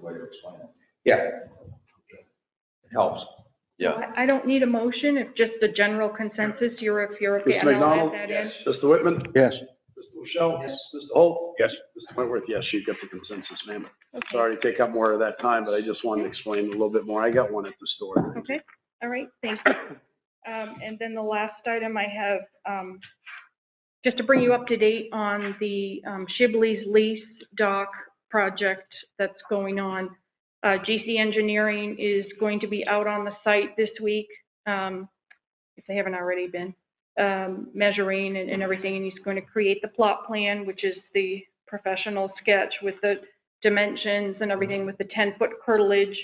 way to explain it. It helps. So I I don't need a motion, if just the general consensus, you're, if you're okay, Mr. and I'll McDonald? add that in. Mr. Whitman? Yes. Mr. Michelle? Mr. Holt? Yes. Mr. Wentworth, yes, you got the consensus, ma'am. Okay. Sorry to take up more of that time, but I just wanted to explain a little bit more. I got one at the store. Okay, all right, thank you. Um, and then the last item I have, um, just to bring you up to date on the, um, Shibley's lease dock project that's going on. Uh, GC Engineering is going to be out on the site this week, um, if they haven't already been, um, measuring and, and everything. And he's going to create the plot plan, which is the professional sketch with the dimensions and everything with the ten-foot curtilage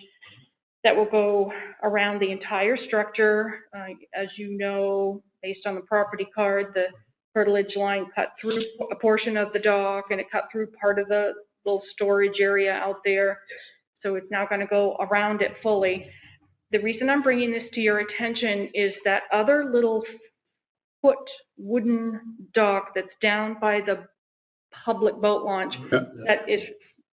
that will go around the entire structure. Uh, As you know, based on the property card, the curtilage line cut through a portion of the dock and it cut through part of the little storage area out there. So it's now going to go around it fully. The reason I'm bringing this to your attention is that other little foot wooden dock that's down by the public boat launch that is,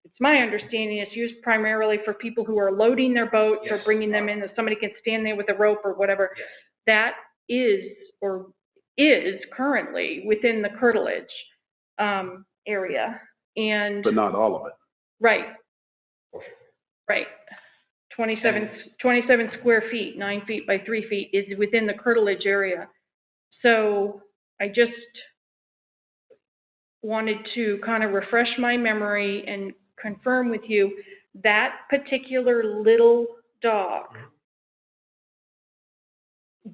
it's my understanding, it's used primarily for people who are loading their boats or Yes. bringing them in, that somebody can stand there with a rope or whatever. Yes. That is, or is currently within the curtilage, um, area. And, But not all of it. right. Right. 27 27 square feet, nine feet by three feet is within the curtilage area. So I just wanted to kind of refresh my memory and confirm with you, that particular little dog,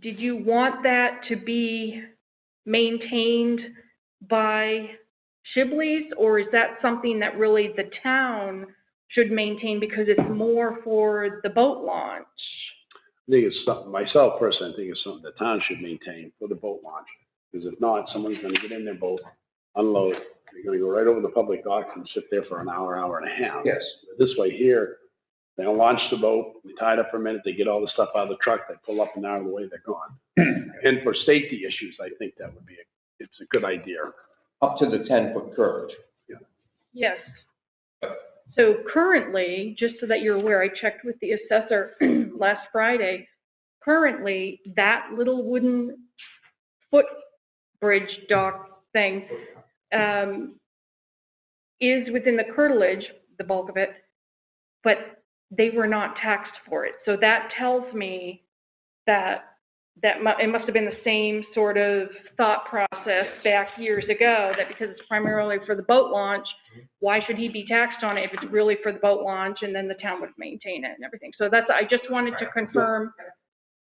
did you want that to be maintained by Shibley's? Or is that something that really the town should maintain because it's more for the boat launch? I think it's something, myself personally, I think it's something the town should maintain for the boat launch. Because if not, someone's gonna get in their boat, unload, they're gonna go right over the public dock and sit there for an hour, hour and a half. Yes. This way here, they don't launch the boat, they tie it up for a minute, they get all the stuff out of the truck, they pull up and out of the way, they're gone. And for safety issues, I think that would be, a- it's a good idea. Up to the ten foot curve. Yes. So currently, just so that you're aware, I checked with the assessor last Friday. Currently, that little wooden footbridge dock thing um, is within the curtilage, the bulk of it, but they were not taxed for it. So that tells me that, that mu- it must have been the same sort of thought process back years ago, that because it's primarily for the boat launch, why should he be taxed on it if it's really for the boat launch and then the town would maintain it and everything? So that's, I just wanted to confirm.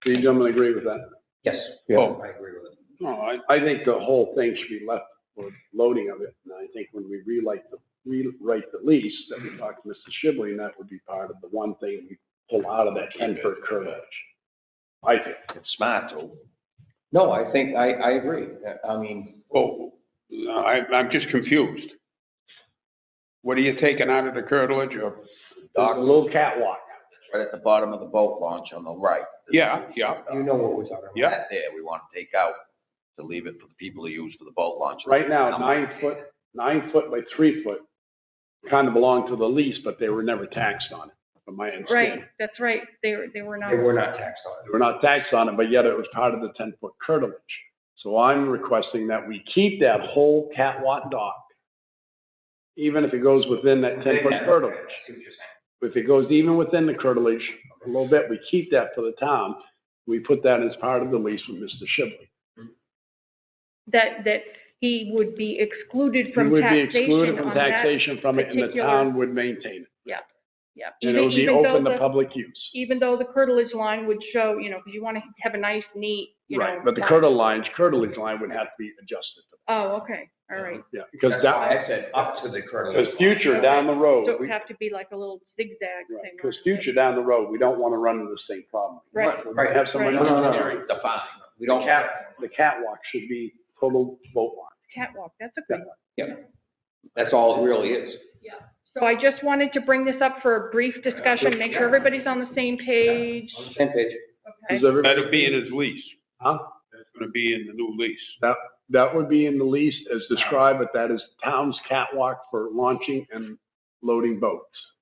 Do you gentlemen agree with that? Yes. Oh, I agree with it. No, I, I think the whole thing should be left for loading of it, and I think when we rewrite the, rewrite the lease, that we talked to Mr. Shibley, and that would be part of the one thing we pull out of that ten foot curtilage. I think. It's smart, though. No, I think, I, I agree. Uh, I mean, Well, I, I'm just confused. What are you taking out of the curtilage or? Doc, a little catwalk. Right at the bottom of the boat launch on the right. Yeah, yeah, you know what we're talking about. yeah. That there, we want to take out to leave it for the people to use for the boat launch. Right now, nine foot, nine foot by three foot kind of belong to the lease, but they were never taxed on it, from my Right, understanding. that's right. They, were- they were not. They were not taxed on They were not taxed on it, but yet it was part of the ten foot curtilage. So I'm requesting that we keep that whole catwalk dock, even if it goes within that it. ten foot curtilage. If it goes even within the curtilage a little bit, we keep that for the town. We put that as part of the lease with Mr. Shibley. that, that he would be excluded We from would be taxation excluded from on that. taxation from it and the particular- town would maintain it. Yeah, And it even, would be even though open to the, public use. even though the curtilage line would show, you know, because you want to have a nice, neat, you know. Right, but the line. curtilage lines, curtilage line would have to be adjusted. Oh, okay, all right. Yeah, because That's that, why I said up to the curtilage. because future down the road, So it we- would have to be like a little zigzag Right, thing. because future down the road, we don't want to run into the same problem. Right. We might have someone Right. No, no, no, engineering. no, defined. We The don't have. cat, the catwalk should be total boat line. Catwalk, that's a good one. That's all it really is. So I just wanted to bring this up for a brief discussion, make sure everybody's on the same page. On the same page. Okay. Is everybody- That'll be in his lease. Huh? That's gonna be in the new lease. That would be in the lease as described, but that is town's catwalk for launching and loading boats.